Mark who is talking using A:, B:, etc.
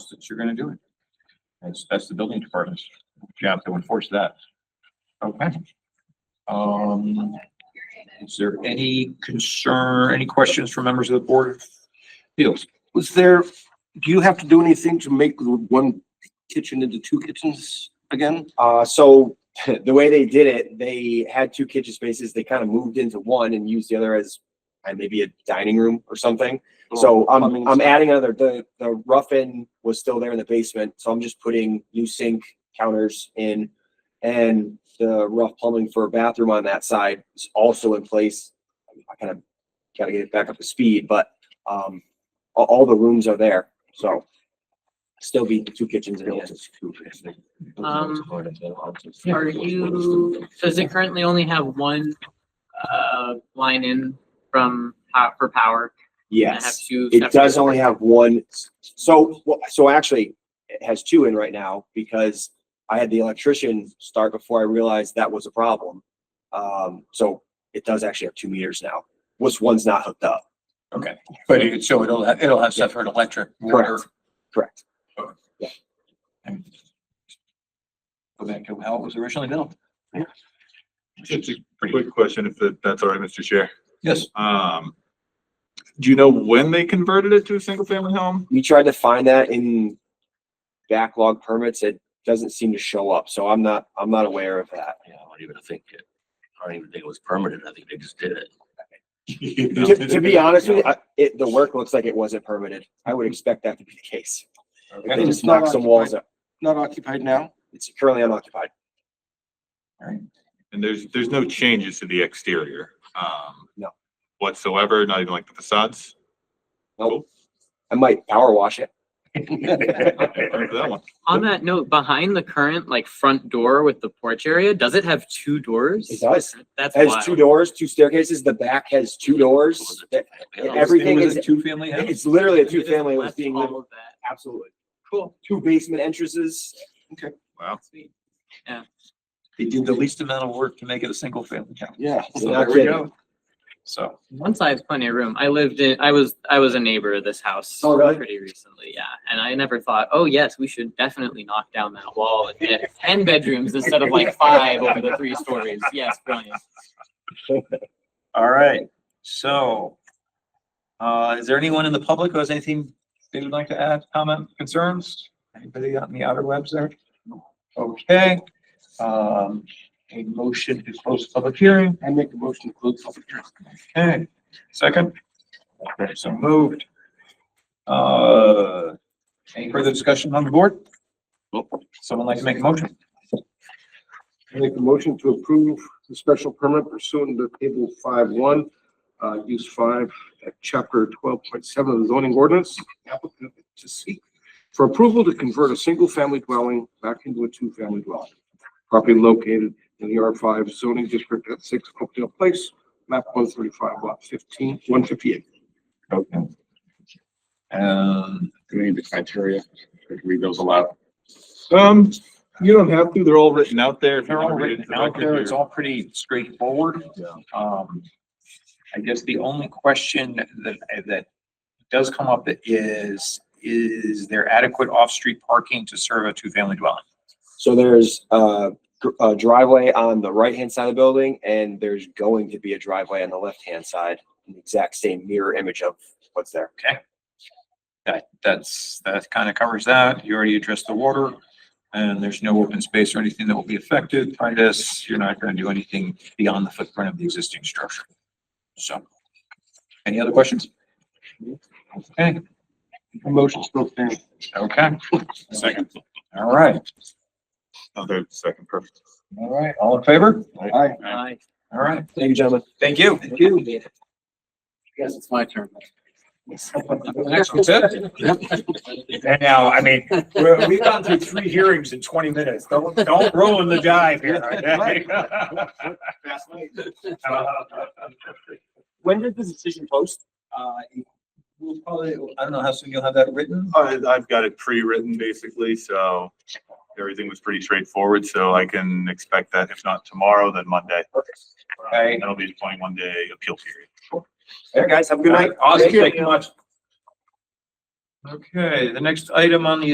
A: that you're gonna do it. That's, that's the building department's job to enforce that. Okay. Um, is there any concern, any questions from members of the board? of Appeals?
B: Was there, do you have to do anything to make the one kitchen into two kitchens again?
C: Uh, so the way they did it, they had two kitchen spaces. They kind of moved into one and used the other as uh, maybe a dining room or something. So I'm,
B: Plumbing
C: I'm
B: stuff.
C: adding another, the, the rough in was still there in the basement. So I'm just putting new sink counters in. And the rough plumbing for a bathroom on that side is also in place. I kind of gotta get it back up to speed, but, um, all, all the rooms are there. So still be two kitchens in the end.
D: Um, Are you, does it currently only have one, uh, line in from, po- for power? And
C: Yes.
D: have two
C: It does
D: separate-
C: only have one, so, well, so actually, it has two in right now, because I had the electrician start before I realized that was a problem. Um, so it does actually have two meters now, which one's not hooked up,
A: Okay, but it, so it'll, have- it'll have separate electric, water.
C: correct?
A: and Go back to how it was originally built.
E: Just a quick question, if that- that's all right, Mr. Chair.
A: Yes,
E: Um, do you know when they converted it to a single family home?
C: We tried to find that in backlog permits, it doesn't seem to show up, so I'm not, I'm not aware of that.
B: Yeah, I don't even think it, I don't even think it was permanent. I think they just did it.
C: To, to be honest with you, I- it, the work looks like it wasn't permitted, I would expect that to be the case. If They
A: Okay.
C: just knocked some walls up,
B: Not occupied now?
C: it's currently unoccupied.
E: And there's, there's no changes to the exterior, um.
C: No.
E: Whatsoever, not even like the facades?
C: Nope. I might power wash it.
E: Remember that one?
D: On that note, behind the current, like, front door with the porch area, does it have two doors?
C: It does.
D: That's
C: Has two
D: wild.
C: doors, two staircases. The back has two doors. That- Everything
A: It was a
C: is-
A: Two-family house?
C: It's literally a
D: They
C: two
D: just
C: family was
D: left
C: being lived,
D: All of that.
C: absolutely.
D: Cool.
C: Two basement entrances.
E: Wow.
D: Sweet.
A: They did the least amount of work to make it a single family house.
B: Yeah.
A: So
C: Not
A: there we
C: kidding.
A: go. So.
D: One side's plenty of room. I lived in, I was, I was a neighbor of this house.
C: Oh, really?
D: Pretty recently, yeah. And I never thought, oh, yes, we should definitely knock down that wall and get ten bedrooms instead of like five over the three stories. Yes, brilliant.
A: All right, so, uh, is there anyone in the public who has anything they would like to add, comment, concerns? Anybody out in the outer webs there? Okay, um, a motion to close the public hearing,
B: I make a motion to close public hearing.
A: okay, second? Okay, So moved. Uh, any further discussion on the board? Someone like to make a motion?
B: I make a motion to approve the special permit pursuant to table five one, uh, use five at chapter twelve point seven of the zoning ordinance. Applicant to seek for approval to convert a single-family dwelling back into a two-family dwelling. Property located in the R five zoning district at six Oakdale Place, map one thirty-five, lot fifteen, one fifty-eight.
A: Okay. Um,
F: Do we need the criteria? Should we read those aloud?
E: Um, you don't have to, they're all written out there. if you
A: They're all
E: wanna read
A: written
E: it to the
A: out
E: record
A: there. It's
E: here.
A: all pretty straightforward. Um, I guess the only question that, that does come up is, is there adequate off-street parking to serve a two-family dwelling?
C: So there's uh, gr- a driveway on the right-hand side of the building and there's going to be a driveway on the left-hand side. The exact same mirror image of what's there.
A: That, that's, that kind of covers that. You already addressed the water. And there's no open space or anything that will be affected by this. You're not going to do anything beyond the footprint of the existing structure. So, any other questions? Okay.
B: Motion still stands.
A: Okay. Second. All right,
E: Oh, there's the second, perfect.
A: all right, all in favor?
B: Aye.
D: Aye.
A: All right,
C: Thank you, gentlemen.
A: thank you.
C: Thank you.
B: Yes, it's my turn.
G: And now, I mean, we're- we've gone through three hearings in twenty minutes. Don't, don't ruin the dive here. okay?
C: When did the decision post?
A: Uh, We'll probably, I don't know how soon you'll have that written.
E: I, I've got it pre-written basically, so everything was pretty straightforward, so I can expect that if not tomorrow, then Monday.
A: Okay.
E: That'll be a twenty-one day appeal period.
C: Hey, guys, have a good night.
A: Awesome, thank you much. Okay, the next item on the